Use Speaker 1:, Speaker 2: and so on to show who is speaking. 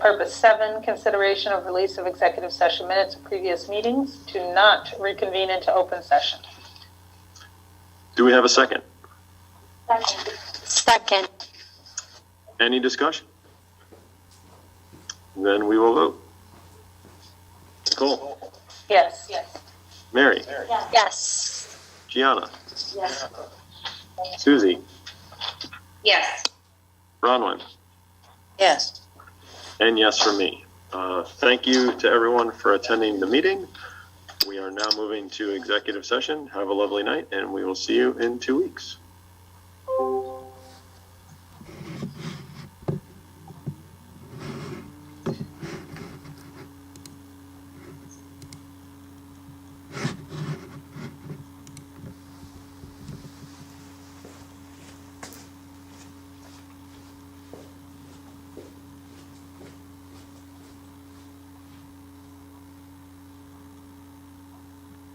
Speaker 1: Purpose seven, consideration of release of executive session minutes of previous meetings to not reconvene into open session.
Speaker 2: Do we have a second?
Speaker 3: Second.
Speaker 2: Any discussion? Then we will vote. Nicole,
Speaker 1: Yes.
Speaker 2: Mary,
Speaker 3: Yes.
Speaker 2: Gianna, Susie,
Speaker 3: Yes.
Speaker 2: Bronwyn,
Speaker 3: Yes.
Speaker 2: and yes for me. Uh, Thank you to everyone for attending the meeting. We are now moving to executive session. Have a lovely night, and we will see you in two weeks.